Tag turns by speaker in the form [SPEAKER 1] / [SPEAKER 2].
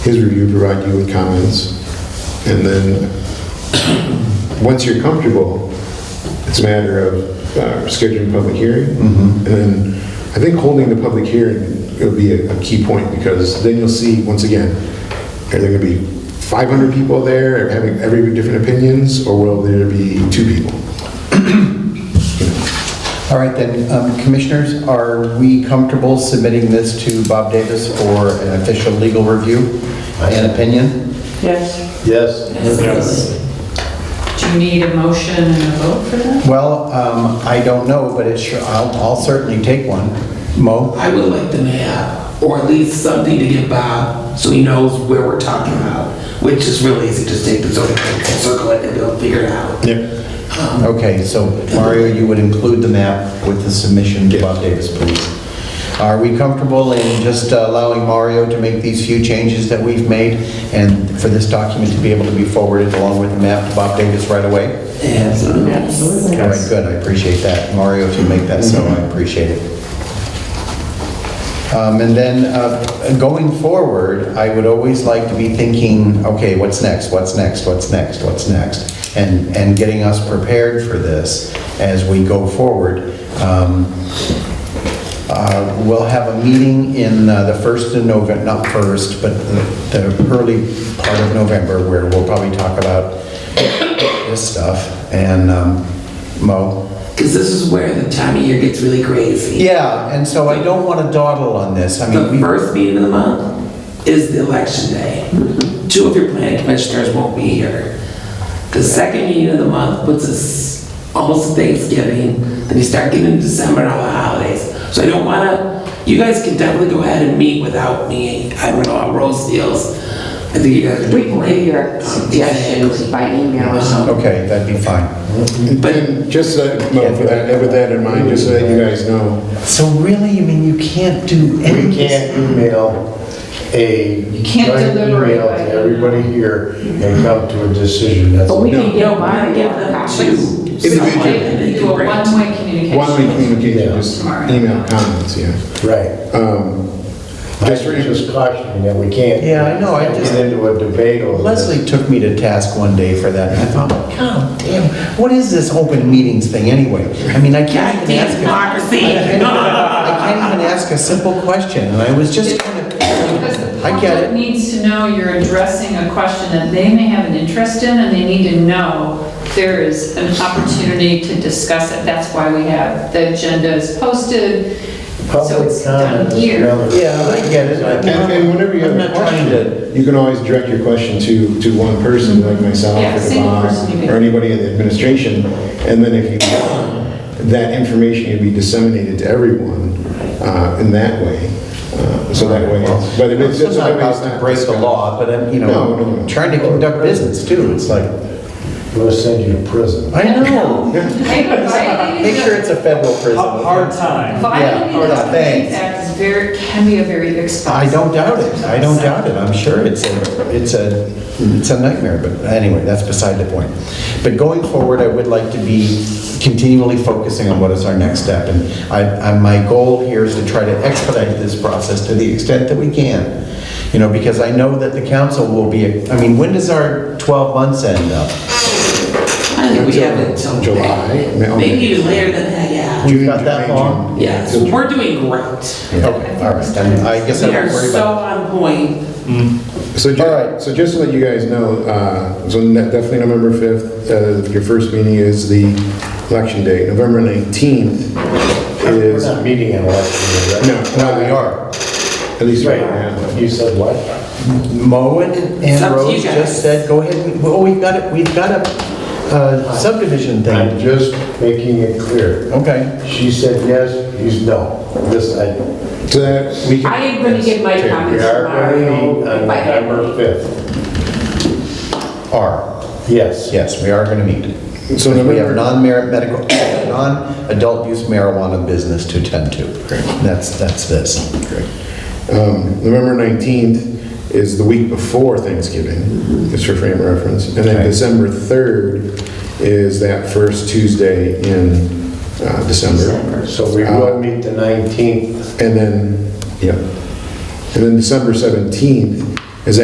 [SPEAKER 1] his review, provide you with comments, and then, once you're comfortable, it's a matter of uh, scheduling a public hearing, and then, I think holding the public hearing will be a a key point, because then you'll see, once again, are there gonna be 500 people there, having every different opinions, or will there be two people?
[SPEAKER 2] All right, then, um, commissioners, are we comfortable submitting this to Bob Davis for an official legal review and opinion?
[SPEAKER 3] Yes.
[SPEAKER 4] Yes.
[SPEAKER 3] Do you need a motion and a vote for that?
[SPEAKER 2] Well, um, I don't know, but it sure, I'll I'll certainly take one. Mo?
[SPEAKER 5] I would like them to have, or at least something to give Bob, so he knows where we're talking about, which is really easy, just take the zoning code and circle it, and they'll figure it out.
[SPEAKER 1] Yeah.
[SPEAKER 2] Okay, so Mario, you would include the map with the submission to Bob Davis, please. Are we comfortable in just allowing Mario to make these few changes that we've made and for this document to be able to be forwarded along with the map to Bob Davis right away?
[SPEAKER 5] Absolutely.
[SPEAKER 3] Absolutely.
[SPEAKER 2] All right, good, I appreciate that. Mario, if you make that so, I appreciate it. Um, And then, uh, going forward, I would always like to be thinking, okay, what's next, what's next, what's next, what's next? And, and getting us prepared for this as we go forward. Um, uh, We'll have a meeting in uh, the first of November, not first, but the the early part of November, where we'll probably talk about this stuff. And um, Mo?
[SPEAKER 5] Because this is where the time of year gets really crazy.
[SPEAKER 2] Yeah, and so I don't want to dawdle on this. I
[SPEAKER 5] The
[SPEAKER 2] mean, we-
[SPEAKER 5] first meeting of the month is the election day.
[SPEAKER 6] Mm-hmm.
[SPEAKER 5] Two of your planning commissioners won't be here. The second meeting of the month puts us almost Thanksgiving, then you start getting into December and all the holidays. So I don't wanna, you guys can definitely go ahead and meet without me, I don't know how Rose deals. I think you guys are
[SPEAKER 6] We
[SPEAKER 5] doing
[SPEAKER 6] can
[SPEAKER 5] great. Um,
[SPEAKER 6] give your suggestions by email or something.
[SPEAKER 2] okay, that'd be fine.
[SPEAKER 1] But just, uh, Mo, for that- with that in mind, just so that you guys know,
[SPEAKER 2] So really, I mean, you can't do any...
[SPEAKER 4] We can't email a
[SPEAKER 3] You can't
[SPEAKER 4] joint
[SPEAKER 3] deliberate
[SPEAKER 4] email
[SPEAKER 3] by
[SPEAKER 4] to
[SPEAKER 3] email.
[SPEAKER 4] everybody here and come to a decision. That's
[SPEAKER 6] But we
[SPEAKER 1] No.
[SPEAKER 6] can
[SPEAKER 5] No,
[SPEAKER 6] get
[SPEAKER 5] mine,
[SPEAKER 6] mine,
[SPEAKER 5] give
[SPEAKER 6] get the
[SPEAKER 5] them
[SPEAKER 6] copies.
[SPEAKER 5] to
[SPEAKER 1] Individual.
[SPEAKER 5] someone and they
[SPEAKER 3] You
[SPEAKER 5] can
[SPEAKER 3] do a
[SPEAKER 5] bring it to
[SPEAKER 3] one-way communication.
[SPEAKER 1] one-way communication, just
[SPEAKER 3] Tomorrow.
[SPEAKER 1] email comments, yeah.
[SPEAKER 4] right.
[SPEAKER 1] Um,
[SPEAKER 4] I
[SPEAKER 1] Just for
[SPEAKER 4] was just cautioning that we can't.
[SPEAKER 2] Yeah, I know, I just-
[SPEAKER 4] Get into a debate over this.
[SPEAKER 2] Leslie took me to task one day for that, and I thought, God damn, what is this open meetings thing anyway? I mean, I can't even
[SPEAKER 5] Goddamn
[SPEAKER 2] ask... a-
[SPEAKER 5] democracy.
[SPEAKER 2] I can't even ask a simple question, and I was just kind
[SPEAKER 3] Because the
[SPEAKER 2] of... I get
[SPEAKER 3] public
[SPEAKER 2] it.
[SPEAKER 3] needs to know you're addressing a question that they may have an interest in, and they need to know there is an opportunity to discuss it. That's why we have, the agenda is posted, so
[SPEAKER 4] Public
[SPEAKER 3] it's
[SPEAKER 4] comment
[SPEAKER 3] done
[SPEAKER 4] is
[SPEAKER 3] here.
[SPEAKER 4] another-
[SPEAKER 2] Yeah, I get it. I-
[SPEAKER 1] And
[SPEAKER 3] Um,
[SPEAKER 1] and whenever you have
[SPEAKER 2] I'm
[SPEAKER 1] a
[SPEAKER 2] not trying to-
[SPEAKER 1] question, you can always direct your question to, to one person, like myself,
[SPEAKER 3] Mm-hmm. Yeah,
[SPEAKER 1] or
[SPEAKER 3] single person you
[SPEAKER 1] Bob,
[SPEAKER 3] can-
[SPEAKER 1] or anybody in the administration, and then if you, that information can be disseminated to everyone uh, in that way. Uh, So that way, it's- but if it's
[SPEAKER 2] It's
[SPEAKER 1] just.
[SPEAKER 2] not about to break the law, but, I'm, you
[SPEAKER 1] No, no, no.
[SPEAKER 2] know, trying to conduct business, too, it's like,
[SPEAKER 4] I'm gonna send you to prison.
[SPEAKER 2] I know.
[SPEAKER 3] Hey, but violating
[SPEAKER 2] Make
[SPEAKER 3] the-
[SPEAKER 2] sure it's a federal prison.
[SPEAKER 7] Hard time.
[SPEAKER 3] Violating
[SPEAKER 2] Yeah,
[SPEAKER 3] the
[SPEAKER 2] yeah, thanks.
[SPEAKER 3] Complaints Act is very, can be a very
[SPEAKER 2] I
[SPEAKER 3] expensive.
[SPEAKER 2] don't doubt it, I don't doubt it, I'm sure it's a, it's a, it's a nightmare, but anyway, that's beside the point. But going forward, I would like to be continually focusing on what is our next step, and I, I, my goal here is to try to expedite this process to the extent that we can. You know, because I know that the council will be, I mean, when does our 12 months end up?
[SPEAKER 5] I think we have it until
[SPEAKER 1] July,
[SPEAKER 5] May.
[SPEAKER 1] May-
[SPEAKER 5] Maybe even later than that, yeah.
[SPEAKER 2] We've got that long?
[SPEAKER 5] Yes, we're doing great.
[SPEAKER 2] Okay, all right, then I guess I
[SPEAKER 5] We are
[SPEAKER 2] don't worry
[SPEAKER 5] so
[SPEAKER 2] about.
[SPEAKER 5] on point.
[SPEAKER 1] So, ju-
[SPEAKER 2] All right.
[SPEAKER 1] so just to let you guys know, uh, so ne- definitely November 5th, uh, your first meeting is the election day. November 19th
[SPEAKER 4] We're
[SPEAKER 1] is,
[SPEAKER 4] not
[SPEAKER 1] no,
[SPEAKER 4] meeting an election, year, right?
[SPEAKER 2] No, we are.
[SPEAKER 1] At least right now.
[SPEAKER 4] Right, you said what?
[SPEAKER 2] Mo and
[SPEAKER 5] It's
[SPEAKER 2] and
[SPEAKER 5] up to you
[SPEAKER 2] Rose just
[SPEAKER 5] guys.
[SPEAKER 2] said, go ahead, we- oh, we've got it, we've got a uh, subdivision
[SPEAKER 4] I'm
[SPEAKER 2] thing.
[SPEAKER 4] just making it clear.
[SPEAKER 2] Okay.
[SPEAKER 4] She said yes, he's no. This, I,
[SPEAKER 1] So that we can.
[SPEAKER 6] I am going to give my
[SPEAKER 4] we
[SPEAKER 6] comments
[SPEAKER 4] are gonna uh,
[SPEAKER 6] tomorrow.
[SPEAKER 4] meet on
[SPEAKER 6] if I have
[SPEAKER 4] November 5th.
[SPEAKER 2] Are,
[SPEAKER 4] Yes.
[SPEAKER 2] yes, we are going to meet.
[SPEAKER 1] So
[SPEAKER 2] We have
[SPEAKER 1] November,
[SPEAKER 2] non-merit medical, non-adult use marijuana business to tend to. That's, that's this.
[SPEAKER 1] um, November 19th is the week before Thanksgiving, just for frame of reference. And then
[SPEAKER 2] Okay.
[SPEAKER 1] December 3rd is that first Tuesday in uh, December.
[SPEAKER 4] So we will meet the 19th.
[SPEAKER 1] And then, yeah. And then December 17th